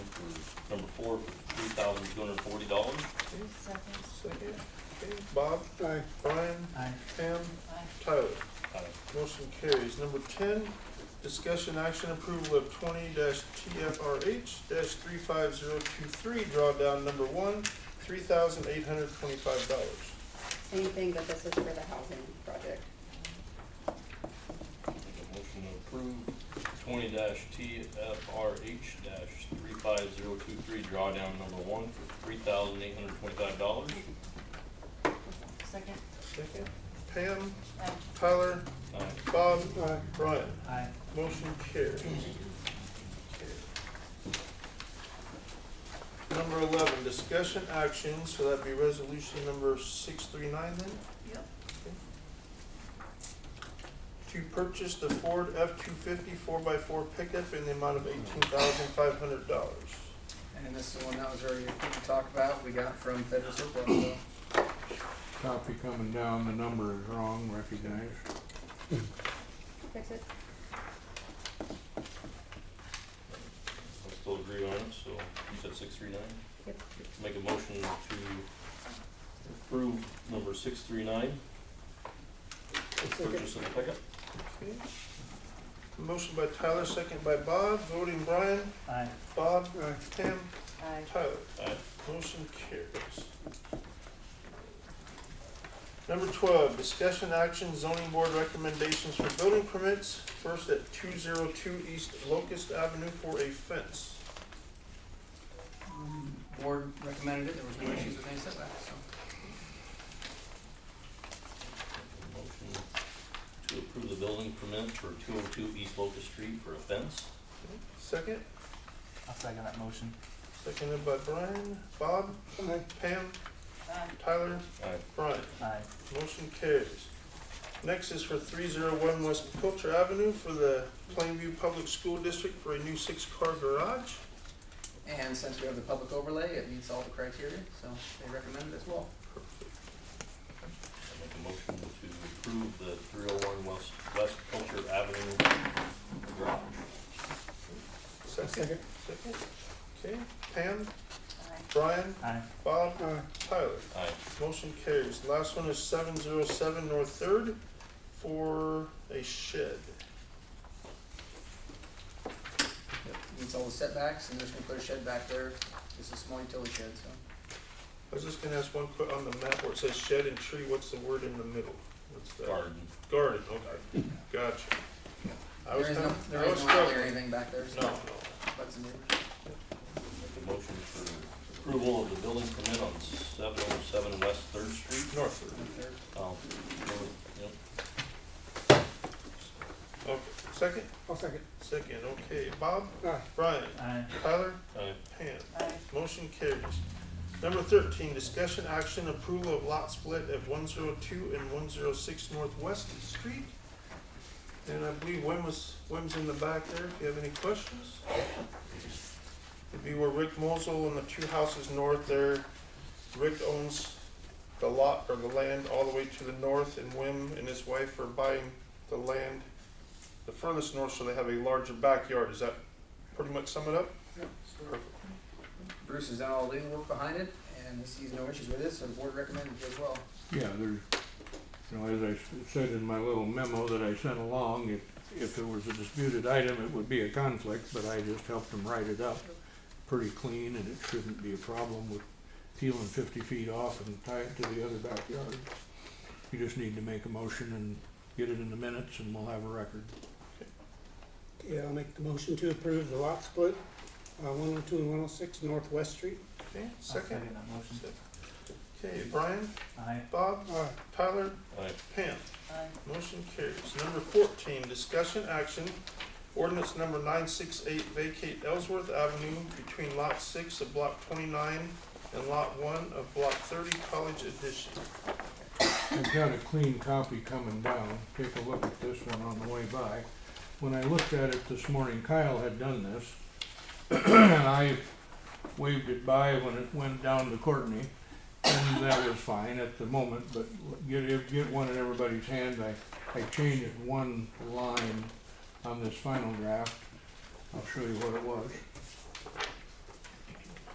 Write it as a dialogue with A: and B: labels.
A: for three thousand two hundred and forty dollars.
B: Bruce seconds.
C: Second. Okay, Bob? Aye. Brian?
D: Aye.
C: Pam?
B: Aye.
C: Tyler?
A: Aye.
C: Motion carries. Number ten, discussion action approval of twenty TFRH three five zero two three, drawdown number one, three thousand eight hundred twenty-five dollars.
E: Same thing, but this is for the housing project.
A: Make a motion to approve twenty TFRH three five zero two three drawdown number one for three thousand eight hundred twenty-five dollars.
B: Second.
C: Second. Pam?
B: Aye.
C: Tyler?
A: Aye.
C: Bob? Brian?
D: Aye.
C: Motion carries. Number eleven, discussion action, so that'd be resolution number six three nine then?
B: Yep.
C: To purchase the Ford F-250 4x4 pickup in the amount of eighteen thousand five hundred dollars.
D: And this is the one that was already talked about, we got from federal surplus, so.
F: Copy coming down, the number is wrong, recognize.
E: Fix it?
A: I still agree on it, so you said six three nine?
E: Yep.
A: Make a motion to approve number six three nine. Purchase of the pickup.
C: Okay. Motion by Tyler, second by Bob, voting Brian,
D: Aye.
C: Bob, Tim,
B: Aye.
C: Tyler.
A: Aye.
C: Motion carries. Number twelve, discussion action zoning board recommendations for building permits, first at two zero two East Locust Avenue for a fence.
D: Mm, Board recommended it, there was no issues with any setbacks, so.
A: Motion to approve the building permit for two oh two East Locust Street for a fence.
C: Second,
D: I'll second that motion.
C: seconded by Brian, Bob, Pam,
B: Aye.
C: Tyler,
A: Aye.
C: Brian.
D: Aye.
C: Motion carries. Next is for three zero one West Pilcher Avenue for the Plainview Public School District for a new six-car garage.
D: And since we have the public overlay, it meets all the criteria, so they recommend it as well.
A: I make a motion to approve the three oh one West, West Culture Avenue garage.
C: Second, second, okay, Pam,
B: Aye.
C: Brian,
D: Aye.
C: Bob, Tyler.
A: Aye.
C: Motion carries. Last one is seven zero seven North Third for a shed.
D: Yep, Meets all the setbacks, and they're just gonna put a shed back there, just a small utility shed, so.
C: I was just gonna ask one quick, on the map where it says shed and tree, what's the word in the middle? What's that?
A: Garden.
C: Garden, okay, gotcha. I was
D: There is no,
C: kinda-
D: there
C: I
D: is
C: was
D: no alley or
C: struggling.
D: anything back there, so.
C: No, no.
D: But some,
A: Make a motion for approval of the building permit on seven oh seven West Third Street.
C: North Third,
D: if they're-
A: Oh, yep.
C: okay, second,
F: I'll second.
C: second, okay, Bob,
F: Aye.
C: Brian, Tyler,
A: Aye.
C: Pam.
B: Aye.
C: Motion carries. Number thirteen, discussion action approval of lot split at one zero two and one zero six Northwest Street. And I believe Wim was, Wim's in the back there, if you have any questions. It'd be where Rick Mosel and the two houses north there, Rick owns the lot or the land all the way to the north, and Wim and his wife are buying the land the furthest north, so they have a larger backyard, Does that pretty much sum it up?
D: Yep.
C: Perfect.
D: Bruce has done all the legal work behind it, and sees no issues with it, so the board recommended it as well.
F: Yeah, there's, you know, as I s- said in my little memo that I sent along, if, if it was a disputed item, it would be a conflict, but I just helped them write it up pretty clean, and it shouldn't be a problem with peeling fifty feet off and tie it to the other backyard. You just need to make a motion and get it in the minutes, and we'll have a record.
G: Yeah, I'll make the motion to approve the lot split, uh, one oh two and one oh six Northwest Street.
C: Okay, second.
D: that motion.
C: Okay, Brian,
D: Aye.
C: Bob,
G: Aye.
C: Tyler,
A: Aye.
C: Pam.
B: Aye.
C: Motion carries. Number fourteen, discussion action. Ordinance number nine six eight vacate Ellsworth Avenue between lot six of block twenty-nine and lot one of block thirty College Edition.
F: I've got a clean copy coming down, take a look at this one on the way by. When I looked at it this morning, Kyle had done this, and I waved it by when it went down to Courtney, and that was fine at the moment, but get, if- get one in everybody's hand, I, I changed one line on this final draft. I'll show you what it was.